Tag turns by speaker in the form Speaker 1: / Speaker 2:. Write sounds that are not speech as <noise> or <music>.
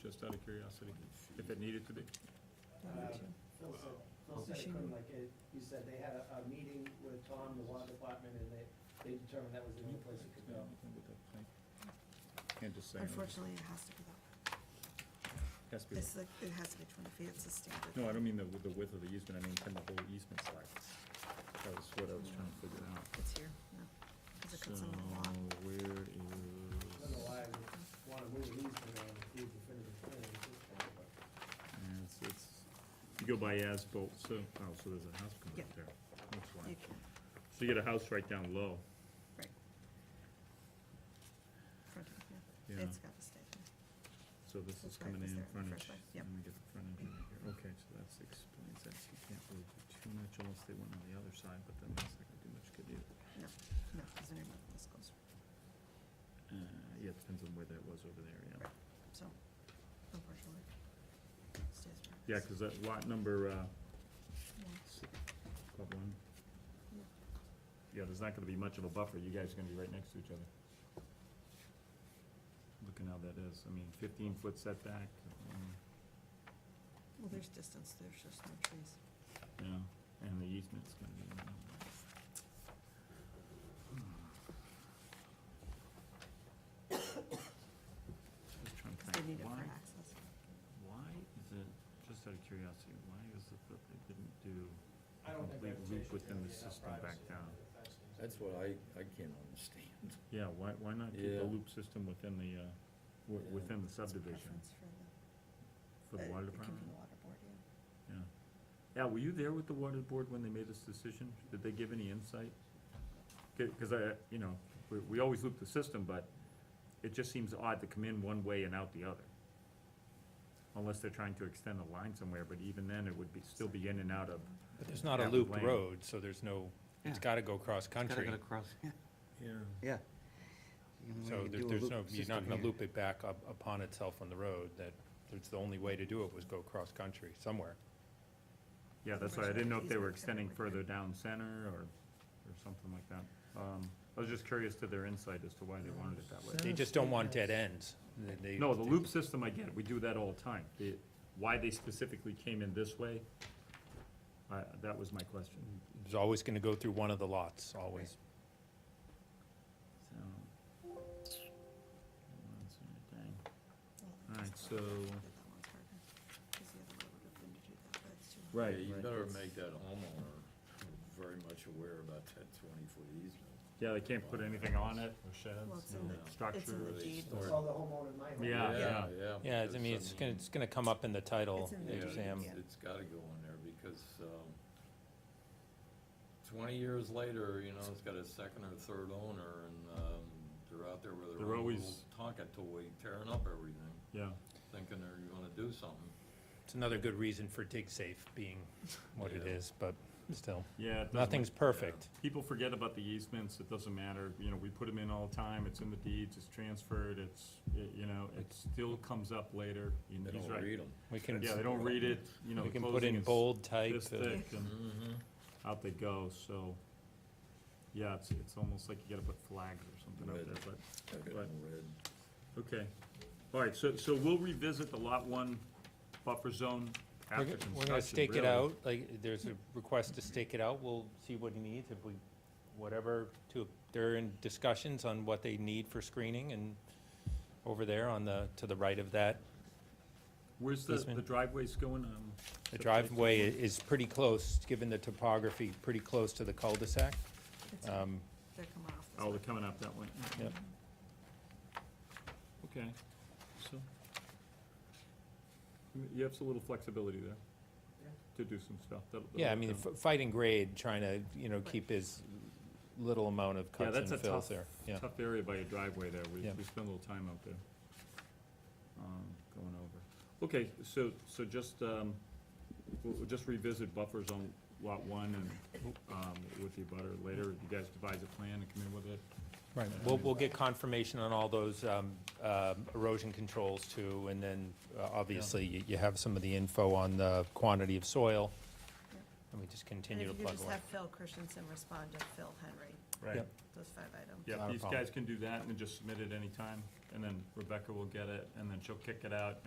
Speaker 1: just out of curiosity, if it needed to be.
Speaker 2: Uh, Phil said, Phil said it couldn't, like, it- he said they had a, a meeting with Tom, the water department, and they, they determined that was the only place it could go.
Speaker 1: Can't just say, no.
Speaker 3: Unfortunately, it has to be that.
Speaker 1: has to be,
Speaker 3: It's like, it has to be twenty feet, it's a standard.
Speaker 1: no, I don't mean the, the width of the easement, I mean, can the whole easement slide? That was what I was trying to figure out.
Speaker 3: It's here, no, because it cuts in the law.
Speaker 1: where
Speaker 2: I don't know
Speaker 1: is,
Speaker 2: why I would wanna move these around, include definitive plan at this point, but
Speaker 1: it's, it's, you go by Asbolt, so, oh, so there's a house coming up
Speaker 3: Yeah.
Speaker 1: there. That's why.
Speaker 3: You can,
Speaker 1: So you get a house right down low.
Speaker 3: right. Front of,
Speaker 1: Yeah.
Speaker 3: yeah, it's got the station.
Speaker 1: So this is
Speaker 3: That's why it
Speaker 1: coming
Speaker 3: was
Speaker 1: in
Speaker 3: there in the
Speaker 1: frontage.
Speaker 3: first place, yep.
Speaker 1: And we get the frontage in here. Okay, so that's explains that. So You can't really do too much unless they went on the other side, but then that's not gonna do much good either.
Speaker 3: No, no, because they're not, this goes,
Speaker 1: Uh, yeah, it depends on where that was over there, yeah.
Speaker 3: so, unfortunately. stays where it
Speaker 1: Yeah,
Speaker 3: is.
Speaker 1: cause that lot number, uh,
Speaker 3: Yeah.
Speaker 1: s- lot one.
Speaker 3: Yeah.
Speaker 1: Yeah, there's not gonna be much of a buffer. You guys are gonna be right next to each other. Looking how that is. I mean, fifteen foot setback, um,
Speaker 3: Well, there's distance, there's just no trees.
Speaker 1: yeah, and the easement's gonna be. in the way. Hmm. Just trying to
Speaker 3: Because they
Speaker 1: think,
Speaker 3: need it
Speaker 1: why,
Speaker 3: for access.
Speaker 1: why is it, just out of curiosity, why is it that they didn't do
Speaker 2: I don't think.
Speaker 1: Complete
Speaker 2: that
Speaker 1: loop
Speaker 2: station
Speaker 1: within
Speaker 2: would
Speaker 1: the
Speaker 2: be enough
Speaker 1: system back
Speaker 2: privacy
Speaker 1: down.
Speaker 2: if that's the case.
Speaker 4: That's what I, I can't understand.
Speaker 1: Yeah, why, why not keep
Speaker 4: Yeah.
Speaker 1: the loop system within the, uh, wi-
Speaker 4: Yeah.
Speaker 1: within the subdivision
Speaker 3: Preference for the.
Speaker 1: for the
Speaker 3: uh,
Speaker 1: water
Speaker 3: it can be
Speaker 1: department?
Speaker 3: the water board, yeah.
Speaker 1: Yeah. Al, were you there with the water board when they made this decision? Did they give any insight? C- Cause I, you know, we, we always loop the system, but it just seems odd to come in one way and out the other. Unless they're trying to extend the line somewhere, but even then, it would be, still be in and out of,
Speaker 5: But there's not a
Speaker 1: Yeah,
Speaker 5: looped
Speaker 1: lane.
Speaker 5: road, so there's no, it's
Speaker 6: Yeah.
Speaker 5: gotta go cross-country.
Speaker 1: yeah,
Speaker 6: Yeah.
Speaker 5: So there- there's no, you're not gonna loop it back up upon itself on the road, that, it's the only way to do it was go cross-country somewhere.
Speaker 1: yeah, that's why I didn't know if they were extending further down center or, or something like that. Um, I was just curious to their insight as to why they wanted it that way.
Speaker 5: They just don't want dead ends. They- they-
Speaker 1: No, the loop system, I get it, we do that all the time. The- Why they specifically came in this way, I- that was my question.
Speaker 5: It's always gonna go through one of the lots, always.
Speaker 1: So.
Speaker 3: Well,
Speaker 1: All right,
Speaker 3: that's why I
Speaker 1: so-
Speaker 3: think that that one's harder, 'cause the other way would have been to do that, but it's too hard.
Speaker 1: <laughs> Right.
Speaker 4: Yeah, you better make that homeowner very much aware about that twenty-foot easement.
Speaker 1: Yeah, they can't put anything on it, or
Speaker 3: Well,
Speaker 1: sheds,
Speaker 3: it's in
Speaker 1: no
Speaker 4: the- it's
Speaker 3: It's in
Speaker 1: structure.
Speaker 4: where
Speaker 3: the
Speaker 4: they
Speaker 3: deed.
Speaker 4: store
Speaker 2: I
Speaker 4: Or-
Speaker 2: Saw the homeowner in my home.
Speaker 1: Yeah, yeah.
Speaker 4: Yeah.
Speaker 5: Yeah, it's- I
Speaker 4: because,
Speaker 5: mean, it's gonna, it's gonna come up in the title,
Speaker 3: It's in the
Speaker 4: Yeah,
Speaker 3: deed,
Speaker 5: Sam.
Speaker 3: yeah.
Speaker 4: It's gotta go in there because, um, twenty years later, you know, it's got a second or third owner and, um, they're out there with their
Speaker 1: They're
Speaker 4: own little
Speaker 1: always-
Speaker 4: Tonka toy tearing up everything,
Speaker 1: Yeah,
Speaker 4: thinking they're gonna do something.
Speaker 5: It's another good reason for dig safe being what it
Speaker 4: Yeah.
Speaker 5: is, but still,
Speaker 1: yeah. it doesn't-
Speaker 5: nothing's perfect.
Speaker 1: People forget about the easements, it doesn't matter, you know, we put them in all the time, it's in the deeds, it's transferred, it's, it- you know, it still comes up later. You know,
Speaker 4: They
Speaker 1: he's
Speaker 4: don't
Speaker 1: right.
Speaker 4: read them.
Speaker 5: We can,
Speaker 1: Yeah, they don't read it, you know,
Speaker 5: we
Speaker 1: the
Speaker 5: can put
Speaker 1: closing
Speaker 5: in
Speaker 1: is
Speaker 5: bold type.
Speaker 1: this
Speaker 5: uh,
Speaker 1: thick and.
Speaker 4: Mm-hmm.
Speaker 1: out they go, so, yeah, it's, it's almost like you gotta put flags or something out there, but,
Speaker 4: I got
Speaker 1: Right.
Speaker 4: them red.
Speaker 1: okay. All right, so, so we'll revisit the lot one buffer zone
Speaker 5: We're
Speaker 1: after
Speaker 5: go-
Speaker 1: construction,
Speaker 5: We're gonna stake it
Speaker 1: really.
Speaker 5: out, like, there's a request to stake it out, we'll see what he needs, if we, whatever, to, they're in discussions on what they need for screening and over there on the, to the right of that.
Speaker 1: Where's the,
Speaker 5: Easement.
Speaker 1: the driveways going, um?
Speaker 5: The
Speaker 1: so-
Speaker 5: driveway i- is pretty close, given the topography, pretty close to the cul-de-sac.
Speaker 3: It's-
Speaker 5: Um,
Speaker 3: They're coming off this
Speaker 1: Oh, they're
Speaker 3: way.
Speaker 1: coming up that way.
Speaker 5: Yep.
Speaker 1: Okay, so. You have some little flexibility there
Speaker 2: Yeah.
Speaker 1: to do some stuff. that'll-
Speaker 5: Yeah, I
Speaker 1: that'll
Speaker 5: mean,
Speaker 1: come.
Speaker 5: f- fighting grade, trying to, you know,
Speaker 3: Right.
Speaker 5: keep his little amount of
Speaker 1: Yeah,
Speaker 5: cuts
Speaker 1: that's
Speaker 5: and
Speaker 1: a
Speaker 5: fills
Speaker 1: tough,
Speaker 5: there, yeah.
Speaker 1: tough area by your driveway there, we,
Speaker 5: Yeah.
Speaker 1: we spend a little time out there. Um, going over. Okay, so, so just, um, we'll, we'll just revisit buffers on lot one and, um, with the abutter later, if you guys devise a plan and come in with it.
Speaker 5: Right, we'll, we'll get confirmation on all those um, um, erosion controls too, and then uh, obviously you- you have some of the info on the quantity of soil.
Speaker 3: Yep.
Speaker 5: And we just
Speaker 3: And
Speaker 5: continue to
Speaker 3: if you could
Speaker 5: plug
Speaker 3: just
Speaker 5: away.
Speaker 3: have Phil Christensen respond to Phil Henry,
Speaker 5: Yep.
Speaker 3: those five items.
Speaker 1: Yeah,
Speaker 5: Not a
Speaker 1: these
Speaker 5: problem.
Speaker 1: guys can do that and just submit it anytime, and then Rebecca will get it, and then she'll kick it out,